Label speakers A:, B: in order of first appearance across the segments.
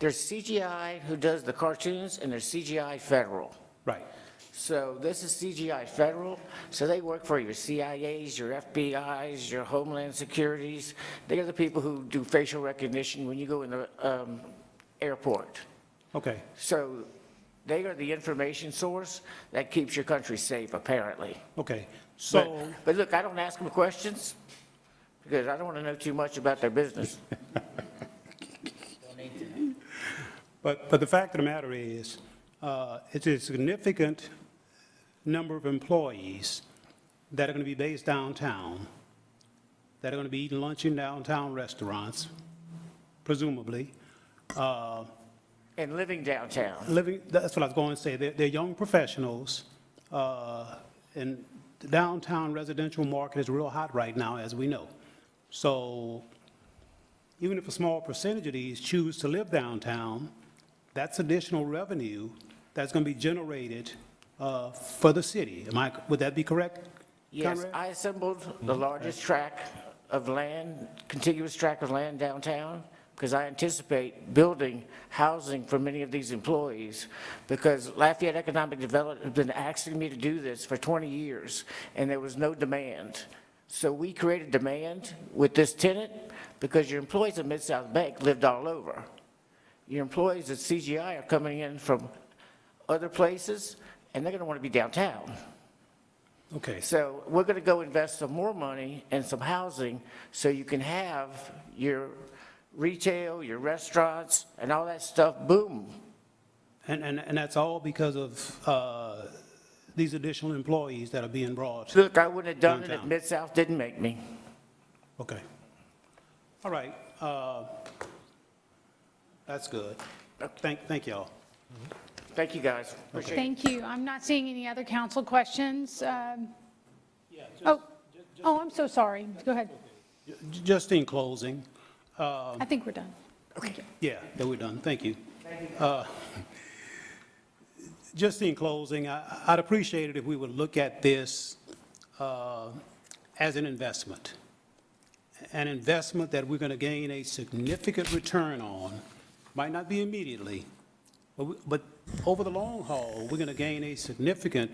A: there's CGI who does the cartoons, and there's CGI Federal.
B: Right.
A: So this is CGI Federal, so they work for your CIAs, your FBIs, your Homeland Securities. They're the people who do facial recognition when you go in the um, airport.
B: Okay.
A: So they are the information source that keeps your country safe, apparently.
B: Okay.
A: But-
B: So,
A: But look, I don't ask them questions, because I don't want to know too much about their business.
B: but, but the fact of the matter is, uh, it's a significant number of employees that are going to be based downtown, that are going to be eating lunch in downtown restaurants, presumably.
A: And living downtown,
B: living, that's what I was going to say, they're, they're young professionals, uh, and the downtown residential market is real hot right now, as we know. So even if a small percentage of these choose to live downtown, that's additional revenue that's going to be generated uh, for the city. Am I, would that be correct?
A: yes,
B: Conrad?
A: I assembled the largest tract of land, contiguous tract of land downtown, because I anticipate building housing for many of these employees, because Lafayette Economic Development has been asking me to do this for 20 years, and there was no demand. So we created demand with this tenant, because your employees at Mid-South Bank lived all over. Your employees at CGI are coming in from other places, and they're going to want to be downtown.
B: Okay,
A: So we're going to go invest some more money in some housing so you can have your retail, your restaurants, and all that stuff boom.
B: and, and, and that's all because of uh, these additional employees that are being brought
A: Look, I wouldn't have done it if
B: Downtown.
A: Mid-South didn't make me.
B: Okay. All right. uh, That's good. Thank, thank y'all.
A: Thank you, guys. Appreciate it.
C: Thank you. I'm not seeing any other council questions. Um, Oh, oh, I'm so sorry. Go ahead.
B: J- Just in closing,
C: I think we're done. Thank you.
B: yeah, that we're done. Thank you. Uh, Just in closing, I- I'd appreciate it if we would look at this uh, as an investment. An investment that we're going to gain a significant return on. Might not be immediately, But, we- but over the long haul, we're going to gain a significant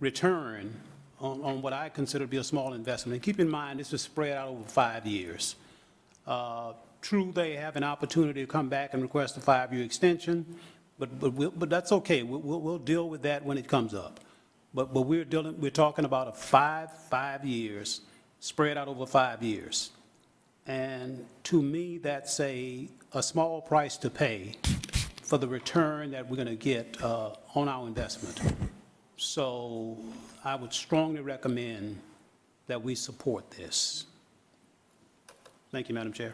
B: return on, on what I consider to be a small investment. And keep in mind, this is spread out over five years. Uh, True, they have an opportunity to come back and request a five-year extension, but, but, we'll- but that's okay. We'll, we'll, we'll deal with that when it comes up. But, but we're dealing, we're talking about a five, five years, spread out over five years. And to me, that's a, a small price to pay for the return that we're going to get uh, on our investment. So I would strongly recommend that we support this. Thank you, Madam Chair.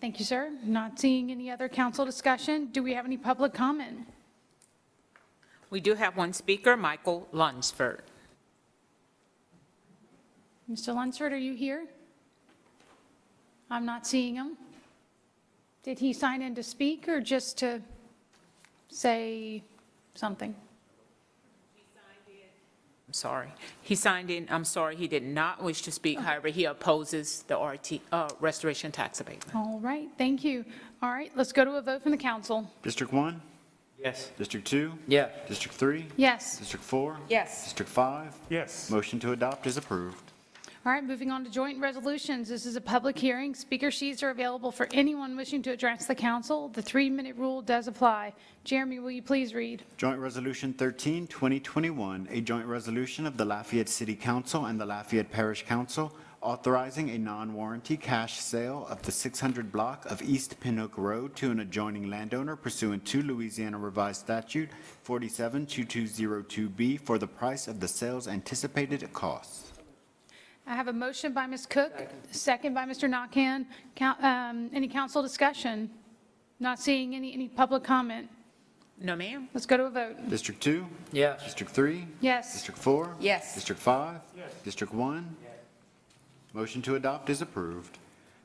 C: Thank you, sir. Not seeing any other council discussion. Do we have any public comment?
D: We do have one speaker, Michael Lunsford.
C: Mr. Lunsford, are you here? I'm not seeing him. Did he sign in to speak or just to say something?
D: I'm sorry. He signed in, I'm sorry, he did not wish to speak, however, he opposes the RT, uh, restoration tax abatement.
C: All right, thank you. All right, let's go to a vote from the council.
E: District one? Yes. District two?
A: Yeah.
E: District three?
C: Yes.
E: District four?
D: Yes.
E: District five?
F: Yes.
E: Motion to adopt is approved.
C: All right, moving on to joint resolutions. This is a public hearing. Speaker sheets are available for anyone wishing to address the council. The three-minute rule does apply. Jeremy, will you please read?
E: Joint Resolution 13, 2021, a joint resolution of the Lafayette City Council and the Lafayette Parish Council authorizing a non-warranty cash sale of the 600 block of East Pinoak Road to an adjoining landowner pursuant to Louisiana Revised Statute 472202B for the price of the sale's anticipated cost.
C: I have a motion by Ms. Cook, second by Mr. Nakhan. Coun- um, Any council discussion? Not seeing any, any public comment.
D: No, ma'am?
C: Let's go to a vote.
E: District two?
A: Yes.
E: District three?
C: Yes.
E: District four?
D: Yes.
E: District five? Yes. District one? Motion to adopt is approved.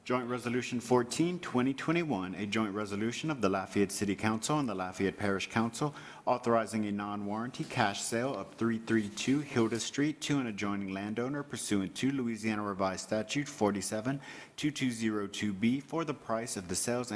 E: Joint Resolution 14, 2021, a joint resolution of the Lafayette City Council and the Lafayette Parish Council authorizing a non-warranty cash sale of 332 Hilda Street to an adjoining landowner pursuant to Louisiana Revised Statute 472202B for the price of the sales